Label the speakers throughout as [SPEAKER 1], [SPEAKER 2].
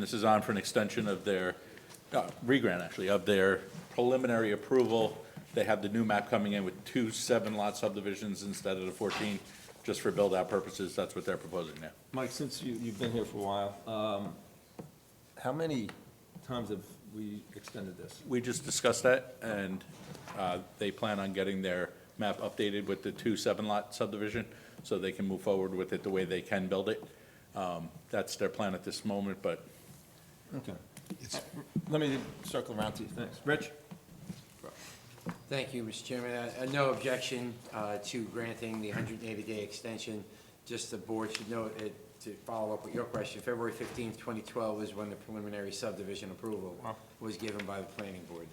[SPEAKER 1] This is on for an extension of their, uh, re-grant actually, of their preliminary approval. They have the new map coming in with two seven-lot subdivisions instead of the 14, just for build-out purposes, that's what they're proposing now.
[SPEAKER 2] Mike, since you, you've been here for a while, um, how many times have we extended this?
[SPEAKER 1] We just discussed that, and uh, they plan on getting their map updated with the two seven-lot subdivision, so they can move forward with it the way they can build it. Um, That's their plan at this moment, but
[SPEAKER 2] Okay. Let me circle around to you, thanks. Rich?
[SPEAKER 3] Thank you, Mr. Chairman. Uh, uh, No objection uh, to granting the 180-day extension. Just the board should note, it- to follow up with your question, February 15th, 2012 is when the preliminary subdivision approval was given by the planning board.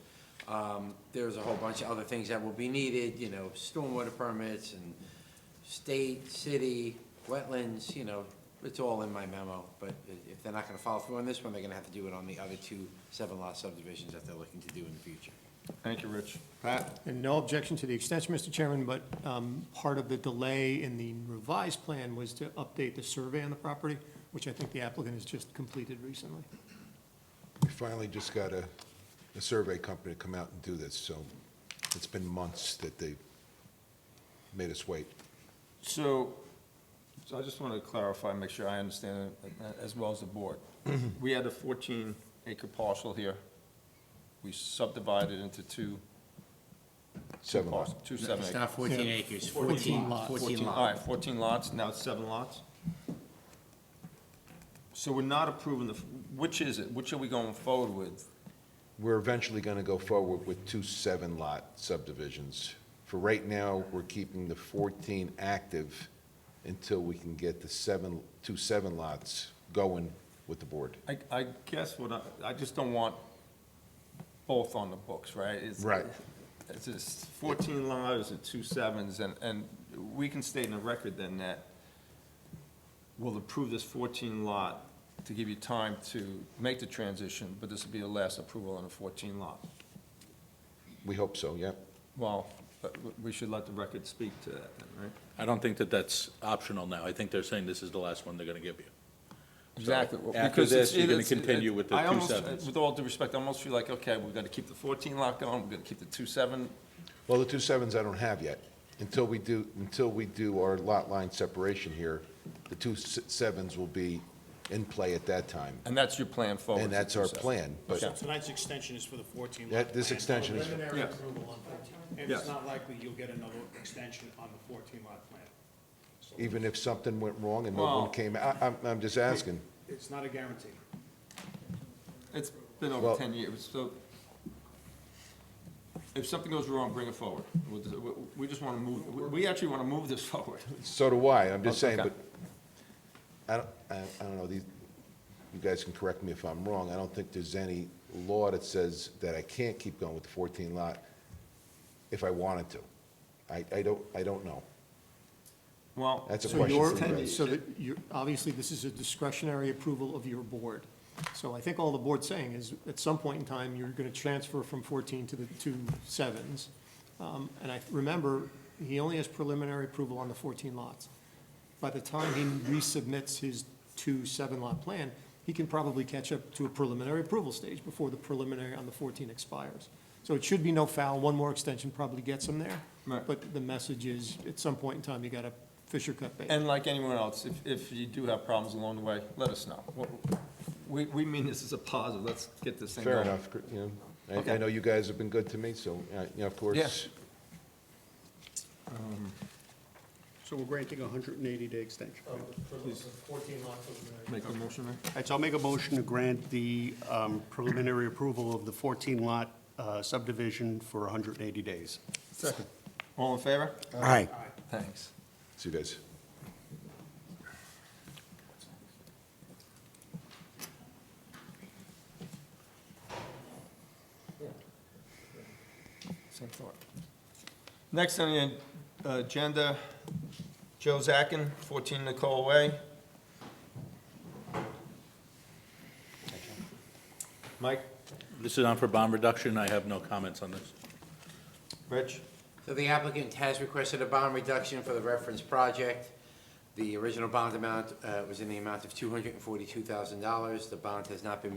[SPEAKER 3] Um, There's a whole bunch of other things that will be needed, you know, stormwater permits and state, city, wetlands, you know, it's all in my memo. But i- if they're not going to follow through on this one, they're going to have to do it on the other two seven-lot subdivisions that they're looking to do in the future.
[SPEAKER 2] Thank you, Rich. Pat?
[SPEAKER 4] And no objection to the extension, Mr. Chairman, but um, part of the delay in the revised plan was to update the survey on the property, which I think the applicant has just completed recently.
[SPEAKER 5] We finally just got a, a survey company to come out and do this, so it's been months that they made us wait.
[SPEAKER 2] So, so I just want to clarify, make sure I understand it uh, as well as the board. We had a fourteen acre parcel here. We subdivided into two.
[SPEAKER 5] Seven lots.
[SPEAKER 2] parcels, Two seven
[SPEAKER 3] It's
[SPEAKER 2] acre.
[SPEAKER 3] not 14 acres, 14 lots. 14
[SPEAKER 2] All right,
[SPEAKER 3] lots.
[SPEAKER 2] fourteen lots, now it's seven lots? So we're not approving the, f- which is it? Which are we going forward with?
[SPEAKER 5] We're eventually going to go forward with two seven-lot subdivisions. For right now, we're keeping the 14 active until we can get the seven, two seven lots going with the board.
[SPEAKER 2] I, I guess what I, I just don't want both on the books, right? It's-
[SPEAKER 5] Right.
[SPEAKER 2] It's just fourteen lives and two sevens, and, and we can state in the record then that we'll approve this fourteen lot to give you time to make the transition, but this will be the last approval on a fourteen lot.
[SPEAKER 5] We hope so, yep.
[SPEAKER 2] Well, but w- we should let the record speak to that then, right?
[SPEAKER 1] I don't think that that's optional now. I think they're saying this is the last one they're going to give you.
[SPEAKER 2] Exactly. well,
[SPEAKER 1] after
[SPEAKER 2] because it's-
[SPEAKER 1] this, you're gonna
[SPEAKER 2] it's- it-
[SPEAKER 1] continue with the
[SPEAKER 2] I
[SPEAKER 1] two
[SPEAKER 2] almost-
[SPEAKER 1] sevens.
[SPEAKER 2] With all due respect, I almost feel like, okay, we've got to keep the fourteen lot going, we've got to keep the two seven
[SPEAKER 5] Well, the two sevens I don't have yet. Until we do, until we do our lot line separation here, the two se- sevens will be in play at that time.
[SPEAKER 2] And that's your plan forward?
[SPEAKER 5] And that's our plan, but
[SPEAKER 2] Okay.
[SPEAKER 6] Tonight's extension is for the 14 lot.
[SPEAKER 5] That- this
[SPEAKER 6] plan.
[SPEAKER 5] extension is-
[SPEAKER 6] Preliminary
[SPEAKER 2] Yes.
[SPEAKER 6] approval on 14. And
[SPEAKER 2] Yes.
[SPEAKER 6] it's not likely you'll get another extension on the 14 lot plan. So
[SPEAKER 5] even if something went wrong and no one
[SPEAKER 2] Well-
[SPEAKER 5] came, I, I'm, I'm just asking.
[SPEAKER 6] It's not a guarantee.
[SPEAKER 2] It's been over
[SPEAKER 5] Well-
[SPEAKER 2] ten years, so if something goes wrong, bring it forward. We'll just- we- We just want to move, we- we actually want to move this forward.
[SPEAKER 5] So do I, I'm just saying,
[SPEAKER 2] Okay.
[SPEAKER 5] but I don't, I, I don't know, these, you guys can correct me if I'm wrong, I don't think there's any law that says that I can't keep going with the fourteen lot if I wanted to. I, I don't, I don't know.
[SPEAKER 2] Well,
[SPEAKER 5] That's a
[SPEAKER 4] So
[SPEAKER 5] question
[SPEAKER 4] your,
[SPEAKER 5] for you guys.
[SPEAKER 4] so that you, obviously, this is a discretionary approval of your board. So I think all the board's saying is, at some point in time, you're gonna transfer from fourteen to the two sevens. Um, and I, remember, he only has preliminary approval on the fourteen lots. By the time he resubmits his two seven-lot plan, he can probably catch up to a preliminary approval stage before the preliminary on the fourteen expires. So it should be no foul, one more extension probably gets him there.
[SPEAKER 2] Right.
[SPEAKER 4] But the message is, at some point in time, you gotta fish or cut bait.
[SPEAKER 2] and like anyone else, if, if you do have problems along the way, let us know. We, we mean this as a positive, let's get this thing
[SPEAKER 5] Fair
[SPEAKER 2] going.
[SPEAKER 5] enough, you know, I, I
[SPEAKER 2] Okay.
[SPEAKER 5] know you guys have been good to me, so, uh, you know, of course.
[SPEAKER 6] So we're granting a 180-day extension.
[SPEAKER 2] Make a motion, Mayor?
[SPEAKER 6] All right, so I'll make a motion to grant the um, preliminary approval of the 14 lot uh, subdivision for 180 days.
[SPEAKER 2] Second. All in favor?
[SPEAKER 7] Aye.
[SPEAKER 2] Thanks.
[SPEAKER 5] See you guys.
[SPEAKER 2] Same thought. Next on the uh, agenda, Joe Zachin, 14 Nicole Way. Mike,
[SPEAKER 1] This is on for bond reduction, I have no comments on this.
[SPEAKER 2] Rich,
[SPEAKER 3] So the applicant has requested a bond reduction for the reference project. The original bond amount uh, was in the amount of $242,000. The bond has not been